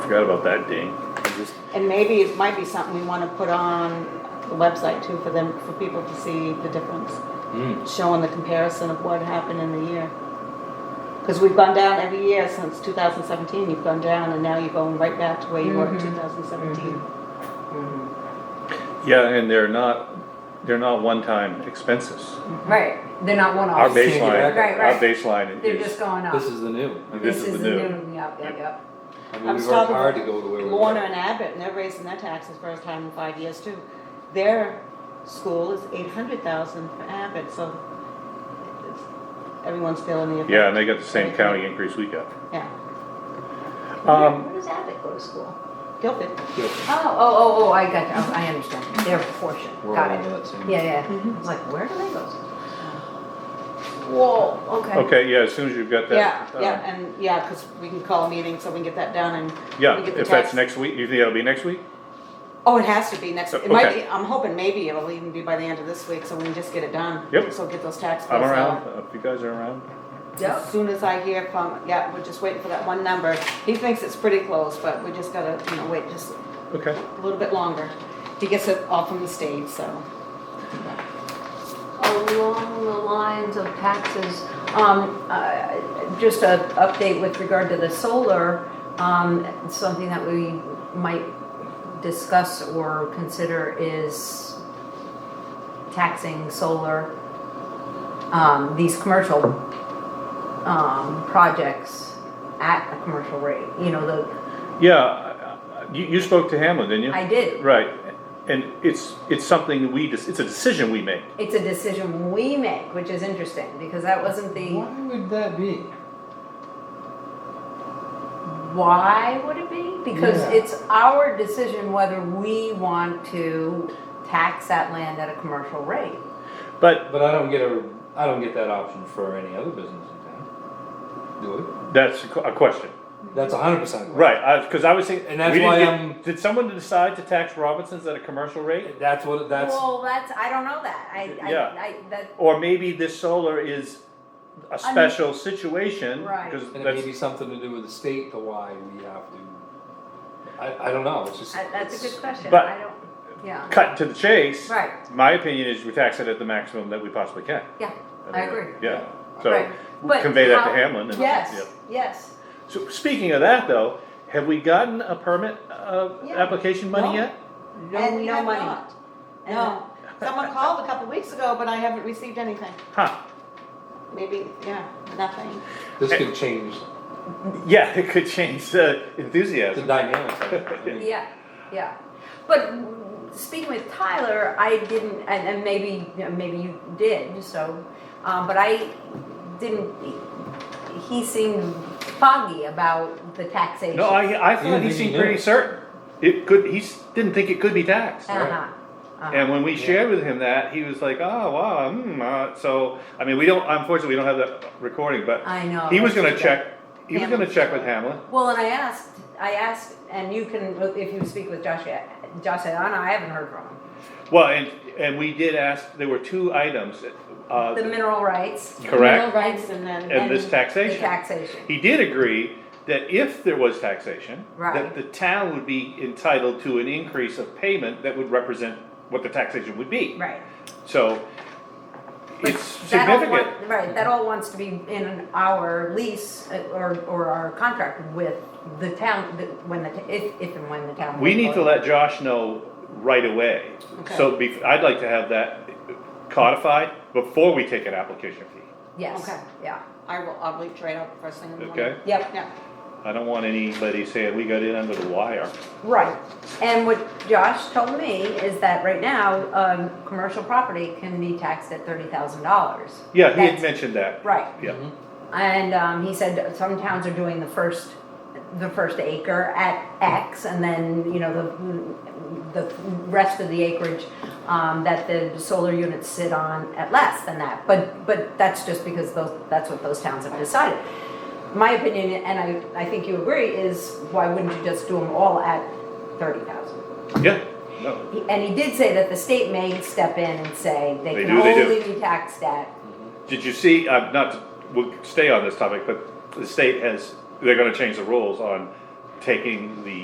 forgot about that, Dean. And maybe it might be something we wanna put on the website too for them, for people to see the difference. Mm. Showing the comparison of what happened in the year. Cause we've gone down every year since two thousand seventeen, you've gone down and now you're going right back to where you were in two thousand seventeen. Mm-hmm. Yeah, and they're not, they're not one-time expenses. Right, they're not Our one-offs, base- baseline, Right, our right. baseline they're just is, going up. This is the new. I mean, this is the new. Yep, yep, yep. I mean, I'm we've worked starting hard to with go to where we Warner were. and Abbott, and they're raising their taxes first time in five years too. Their school is eight hundred thousand for Abbott, so it's- everyone's feeling the effect. Yeah, and they got the same county increase we got. Yeah, Where Um, where does Abbott go to school? Guilford. Oh, oh, oh, oh, I got you, Oh, I understand, they're proportion, We're all got under it. that same. Yeah, yeah, I was like, where do they go? Whoa, okay. okay, yeah, as soon as you've got Yeah, that. uh, yeah, and yeah, because we can call a meeting so we can get that done and. Yeah, we get the if that's tax- next week, you think that'll be next week? Oh, it has to be next, it might Okay. be, I'm hoping maybe it'll even be by the end of this week, so we can just get it done. Yep. So get those tax I'm bills around, out. Uh, if you guys are around. Yep. As soon as I hear from, yeah, we're just waiting for that one number. He thinks it's pretty close, but we just gotta, you know, wait just Okay. a little bit longer. He gets it all from the state, so. along the lines of taxes, um, uh, just a update with regard to the solar, um, something that we might discuss or consider is taxing solar, um, these commercial, um, projects at a commercial rate, you know, the, Yeah, I- I- you, you spoke to Hamlin, didn't you? I did. Right, and it's, it's something we, dis- it's a decision we make. It's a decision we make, which is interesting, because that wasn't the, Why would that be? why would it be? Because Yeah. it's our decision whether we want to tax that land at a commercial rate. But But I don't get a, I don't get that option for any other business in town. Do that's a qu- a question. it? That's a hundred percent. Right, because I was thinking, And that's we didn't why get- I'm- Did someone decide to tax Robinsons at a commercial rate? That's what, that's, Well, that's, I don't know that, I, I, Yeah. I, that, Or maybe this solar is a special situation? Right. Because and it may that's, be something to do with the state to why we have to, I, I don't know, it's just. I- that's a it's- good question, but- I don't, yeah, cut to the chase. Right. My opinion is we tax it at the maximum that we possibly can. yeah, I agree. Yeah, Right. so But convey that to how- Hamlin and. Yes, Yep. yes, So speaking of that though, have we gotten a permit, uh, Yeah. application money No. yet? And we no have money. not. And No. Someone called a couple weeks ago, but I haven't received anything. Huh, Maybe, yeah, nothing. This could change yeah, it could change the the enthusiasm. dynamics of it. I mean, yeah, yeah. But speaking with Tyler, I didn't, and, and maybe, maybe you did, so, um, but I didn't, he seemed foggy about the taxation. No, I, I You thought didn't he think he seemed knew. pretty certain. It could, he s- didn't think it could be taxed. Uh-huh, uh-huh. And when we shared with him that, he was like, oh, wow, hmm, uh, so, I mean, we don't, unfortunately, we don't have that recording, but. I know, He was that's gonna too check, he was Hamlin. gonna check with Hamlin. Well, and I asked, I asked, and you can, if you speak with Josh, uh, Josh and Anna, I haven't heard from him. Well, and, and we did ask, there were two items, uh, The mineral rights correct? rights and then. And this the taxation. taxation. He did agree that if there was taxation, that Right. the town would be entitled to an increase of payment that would represent what the taxation would be. Right. So, But it's that all significant. want- Right, that all wants to be in our lease uh, or, or our contract with the town, the- when the, ta- if, if and when the town. We need to let Josh know right away. Okay. So be- I'd like to have that codified before we take an application fee, Yes, Okay. yeah, I will, I'll reach right out first thing in the morning. okay? yep, Yeah, I don't want anybody saying we got in under the wire. right. And what Josh told me is that right now, um, commercial property can be taxed at thirty thousand dollars. Yeah, he had mentioned that. Right, Yeah, And um, he said some towns are doing the first, the first acre at X, and then you know the the rest of the acreage um, that the solar units sit on at less than that. But but that's just because those that's what those towns have decided. My opinion, and I I think you agree, is why wouldn't you just do them all at thirty thousand? yeah, no, He- And he did say that the state may step in and say they, They can do, they do. only be taxed at Did you see, uh, not, to- we'll stay on this topic, but the state has, they're gonna change the rules on taking the